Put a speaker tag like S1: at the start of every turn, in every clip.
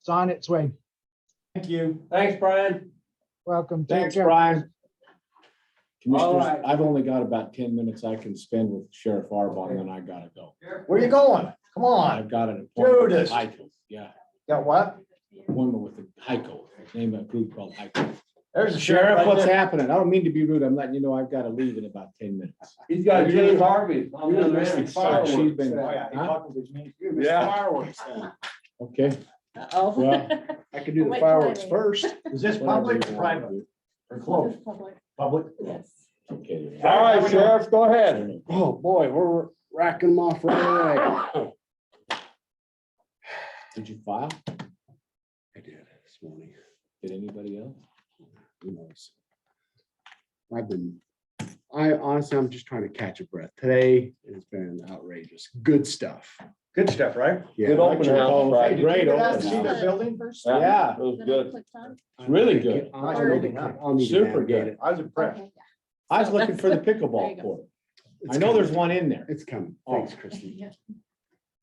S1: It's on its way.
S2: Thank you.
S3: Thanks, Brian.
S1: Welcome. Take
S4: Thanks,
S1: care.
S4: Brian.
S3: right.
S2: Commissioners, I've only got about ten minutes I can spend with Sheriff Arbon, and then I gotta go.
S4: Where you going? Come on.
S2: I've got an appointment
S4: Dude,
S2: with
S4: this-
S2: Heiko, yeah,
S4: Got what?
S2: appointment with the Heiko, name of a group called Heiko.
S4: There's the sheriff.
S2: Sheriff,
S4: right
S2: what's
S4: there.
S2: happening? I don't mean to be rude, I'm letting you know I've gotta leave in about ten minutes.
S3: He's got
S2: You're
S3: James
S2: the-
S3: Harvey. I'm
S2: you're the
S3: the man
S2: mystery
S3: of
S2: star. She's been-
S4: Oh,
S3: fireworks.
S4: yeah, he
S2: Huh?
S4: talking to me.
S5: Yeah.
S4: Fireworks.
S2: Okay,
S6: Uh-oh.
S2: Well,
S5: I could do the
S6: Oh. Wait,
S5: fireworks
S6: wait.
S5: first.
S4: Is this
S2: whatever you
S4: public or
S2: wanna
S4: private
S2: do.
S4: or closed?
S6: Public,
S4: Public.
S6: Yes.
S2: Okay.
S3: All right, Sheriff, go ahead.
S5: Oh, boy, we're racking them off right away.
S2: Did you file?
S5: I did this morning.
S2: Did anybody else?
S5: Who knows? I've been, I honestly, I'm just trying to catch a breath. Today has been outrageous. Good stuff.
S4: Good stuff, right?
S5: Yeah,
S3: Good open
S5: actually,
S3: house,
S2: Hey,
S3: Friday.
S2: did you Great
S4: Get
S2: open
S4: out to see
S2: house.
S4: their building.
S6: First.
S2: Yeah.
S3: It was
S6: Then I
S3: good.
S6: clicked on.
S5: I
S2: Really
S5: think
S2: good.
S5: it- I don't think it- I'll need to
S2: Super
S5: navigate
S2: good.
S5: it.
S4: I was impressed.
S6: Okay, yeah.
S2: I was
S6: So
S2: looking
S6: that's
S2: for the
S6: good. There
S2: pickleball
S6: you go.
S2: court.
S5: It's
S2: I know there's
S5: coming.
S2: one in there.
S5: It's coming.
S2: Oh.
S5: Thanks, Christie.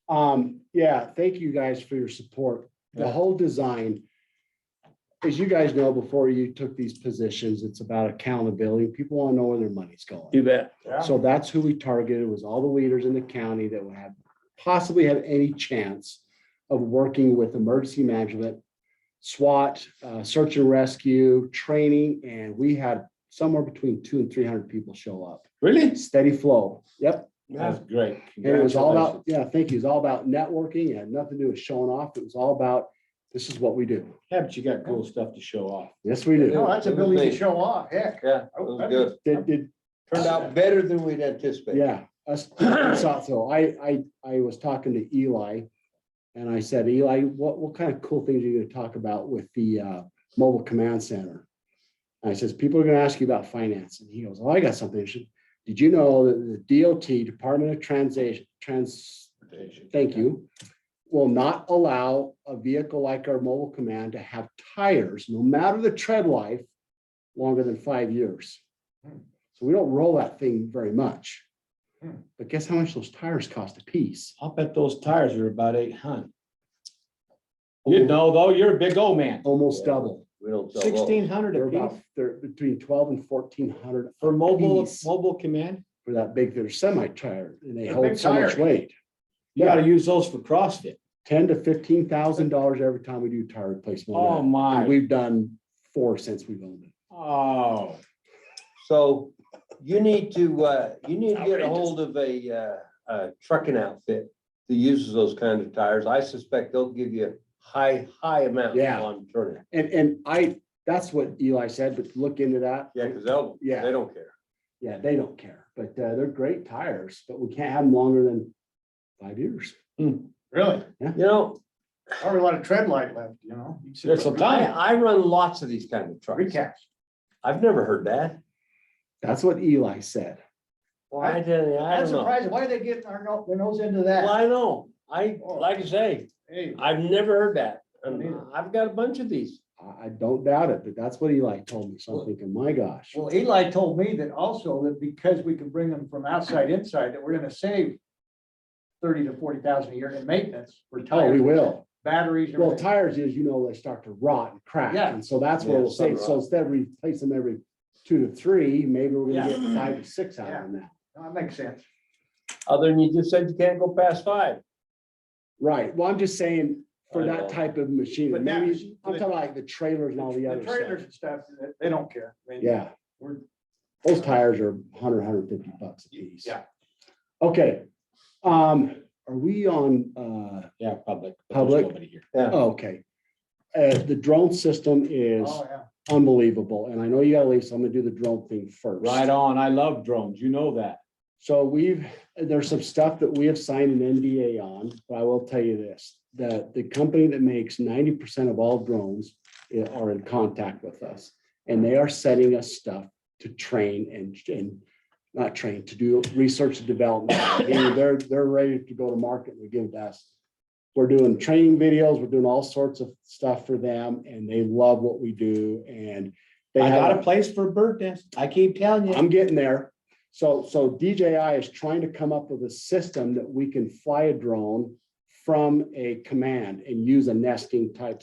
S5: Um, yeah, thank you guys for your support. The
S2: Yeah.
S5: whole design. As you guys know, before you took these positions, it's about accountability. People want to know where their money's going.
S3: bet.
S5: So that's who we targeted was all the leaders in the county that would have possibly have any chance of working with emergency management, SWAT, uh, search and rescue, training, and we had somewhere between two and three hundred people show up.
S2: Really?
S5: Steady flow. Yep.
S2: That's great.
S5: And it was all about,
S2: Congratulations.
S5: yeah, thank you. It's all about networking. It had nothing to do with showing off. It was all about, this is what we do.
S2: Yeah, but you got cool stuff to show off.
S5: Yes, we do.
S4: No, that's ability to show off, heck.
S3: Yeah, it
S5: Oh,
S3: was good.
S5: Did, did,
S3: Turned out better than we'd anticipated.
S5: yeah, us, I thought so I, I, I was talking to Eli. And I said, Eli, what, what kind of cool things are you gonna talk about with the, uh, mobile command center? And I says, people are gonna ask you about finance. And he goes, oh, I got something. interesting. Did you know that the DOT, Department of Transit, Trans, thank you, will not allow a vehicle like our mobile command to have tires, no matter the tread life, longer than five years.
S2: Hmm.
S5: So we don't roll that thing very much.
S4: Hmm.
S5: But guess how much those tires cost a piece?
S2: I'll bet those tires are about eight hun. You know, though, you're a big old man.
S5: Almost double.
S3: We don't sell those.
S2: Sixteen hundred
S5: They're
S2: a
S5: about,
S2: piece
S5: they're between twelve and fourteen hundred
S2: for mobile,
S5: Piece.
S2: mobile command.
S5: for that big, they're semi-tired and they
S4: They're
S5: hold
S4: big
S5: so much
S4: tires.
S5: weight.
S2: You gotta use those for CrossFit.
S5: Ten to fifteen thousand dollars every time we do tire replacement.
S2: Oh,
S5: And
S2: my.
S5: we've done four since we've owned it.
S2: Oh,
S3: So you need to, uh, you need to get a hold of a, uh, a trucking outfit that uses those kinds of tires. I suspect they'll give you high, high amounts
S5: Yeah.
S3: on turning.
S5: And, and I, that's what Eli said, but look into that.
S3: Yeah, because they'll,
S5: Yeah.
S3: they don't care.
S5: Yeah, they don't care, but uh, they're great tires, but we can't have them longer than five years.
S4: Really?
S3: You know,
S4: Probably a lot of tread light left, you know?
S2: there's some
S3: I,
S2: time.
S3: I run lots of these kind of trucks.
S4: Recap.
S3: I've never heard that.
S5: That's what Eli said.
S3: Why, I don't I
S4: That's
S3: don't know.
S4: surprising. Why are they getting our no- their nose into
S3: Well,
S4: that?
S3: I know. I, like I say,
S4: Hey,
S3: I've never heard that.
S4: Oh. Me
S3: And
S4: neither.
S3: I've got a bunch of these.
S5: I, I don't doubt it, but that's what Eli told me. So I'm thinking, my gosh,
S4: well, Eli told me that also that because we can bring them from outside inside, that we're gonna save thirty to forty thousand a year in maintenance for
S5: oh, we
S4: tires,
S5: will.
S4: batteries. and
S5: Well,
S4: everything.
S5: tires is, you know, they start to rot and crack.
S4: Yeah.
S5: And so that's where
S3: Yeah,
S5: we'll
S3: some
S5: say, so
S3: rot.
S5: instead of replace them every two to three, maybe we're gonna
S4: Yeah.
S5: get five to six out of them now.
S4: No, That makes sense.
S3: Other than you just said you can't go past five.
S5: Right. Well, I'm just saying for
S3: I
S5: that
S3: know.
S5: type of machine,
S4: But that
S5: maybe,
S4: machine-
S5: I'm talking like the trailers and all the
S4: The
S5: other
S4: trailers
S5: stuff.
S4: and stuff, they- they don't care. I mean,
S5: Yeah.
S4: We're,
S5: Those tires are 100, 150 bucks a piece.
S4: yeah.
S5: Okay, um, are we on, uh,
S2: Yeah, public. but there's
S5: Public.
S2: nobody here.
S5: oh, okay. Uh, the drone system is
S4: Oh, yeah.
S5: unbelievable, and I know you gotta leave, so I'm gonna do the drone thing first.
S2: Right on. I love drones. You know that.
S5: So we've, there's some stuff that we have signed an NDA on, but I will tell you this, that the company that makes ninety percent of all drones i- are in contact with us, and they are sending us stuff to train and, and not train, to do research and development. Meaning They're, they're ready to go to market and give it to us. We're doing training videos, we're doing all sorts of stuff for them, and they love what we do, and they
S2: I
S5: have.
S2: got a place for bird nest. I keep telling you.
S5: I'm getting there. So, so DJI is trying to come up with a system that we can fly a drone from a command and use a nesting type